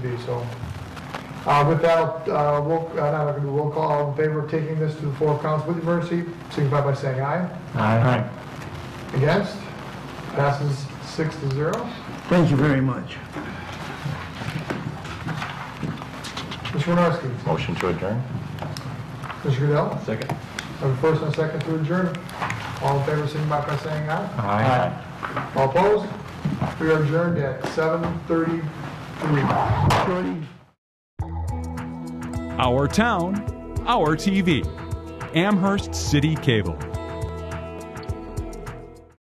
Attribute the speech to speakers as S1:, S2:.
S1: be, so. Uh, With that, uh, we'll, uh, now we're going to do roll call, all in favor of taking this to the floor of council with emergency, signify by saying aye.
S2: Aye.
S1: Against? Passes six to zero.
S2: Thank you very much.
S1: Mr. Winarski?
S3: Motion to adjourn?
S1: Mr. Goodell?
S3: Second.
S1: Have a first and a second to adjourn. All in favor, signify by saying aye.
S3: Aye.
S1: All opposed? We are adjourned at 7:33.
S2: Shorty?
S4: Our Town, Our TV. Amherst City Cable.